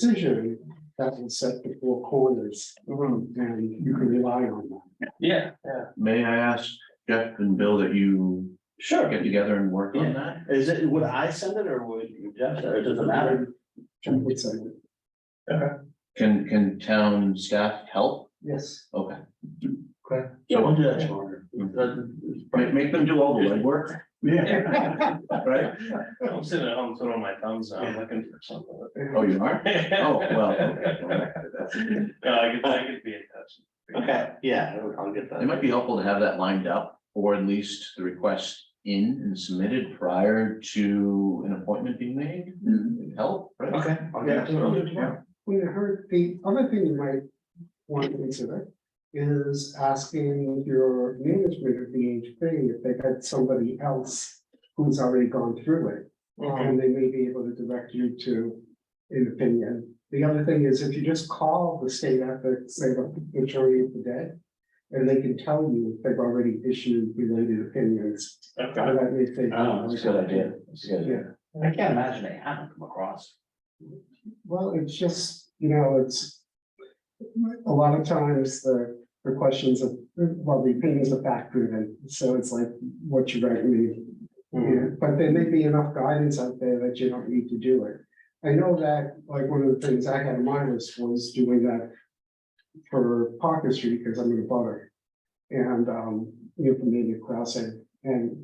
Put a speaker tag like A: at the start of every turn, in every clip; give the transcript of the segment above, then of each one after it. A: decision that was set before corners
B: Mm-hmm.
A: and you can rely on that.
B: Yeah, yeah,
C: May I ask Jeff and Bill that you
B: sure.
C: get together and work on that?
B: Is it, would I send it or would you, Jeff, or it doesn't matter?
A: Jeff would say that.
C: Can, can town staff help?
B: Yes.
C: Okay,
B: Yeah, we'll do that tomorrow. Doesn't-
C: make, make them do all the legwork,
B: Yeah.
C: right?
B: I'm sitting at home throwing my thumbs out, looking for something.
C: Oh, you are? Oh, well. okay.
B: No, I could, I could be in touch. Okay, yeah, I'll get that.
C: It might be helpful to have that lined up, or at least the request in and submitted prior to an appointment being made. Would Help, right?
B: Mm-hmm. Okay, I'll get it. I'll do it tomorrow.
A: We heard, the other thing you might want to consider is asking your management of the HB if they've had somebody else who's already gone through it. And they may be able to direct you to an opinion. The other thing is if you just call the state ethics, say the majority of the day, and they can tell you if they've already issued related opinions.
B: Okay.
A: How that may take.
B: Oh,
C: That's a good idea. That's a good idea.
B: I can't imagine they haven't come across.
A: Well, it's just, you know, it's. A lot of times the, the questions of, well, the opinions are fact driven, so it's like, what you recommend.
B: Hmm.
A: Yeah, but there may be enough guidance out there that you don't need to do it. I know that, like, one of the things I had in mind was, was doing that. For Parker Street, because I'm in a butter. And, um, you know, from Indian Crossing, and,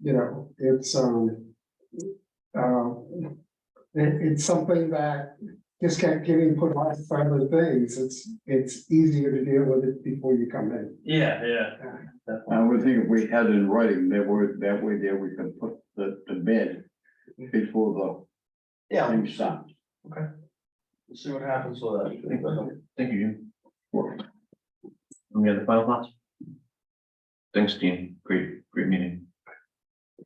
A: you know, it's, um. Uh, it- it's something that just kept getting put off for other things. It's, it's easier to deal with it before you come in.
B: Yeah, yeah.
D: I would think if we had it in writing, that were, that way there we could put the, the bid before the
B: Yeah,
D: thing stopped.
B: we'll see what happens with that.
C: Thank you, Jim. Any other final thoughts? Thanks, Dean. Great, great meeting.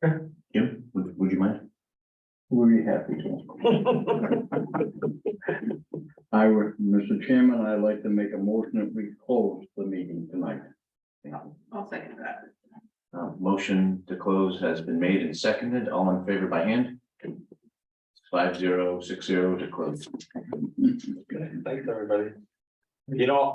B: Okay.
C: Jim, would, would you mind?
D: We'd be happy to. I would, Mr. Chairman, I'd like to make a motion that we close the meeting tonight.
E: I'll second that.
C: Uh, motion to close has been made and seconded. All in favor by hand? Five zero, six zero to close.
B: Thanks, everybody. You know,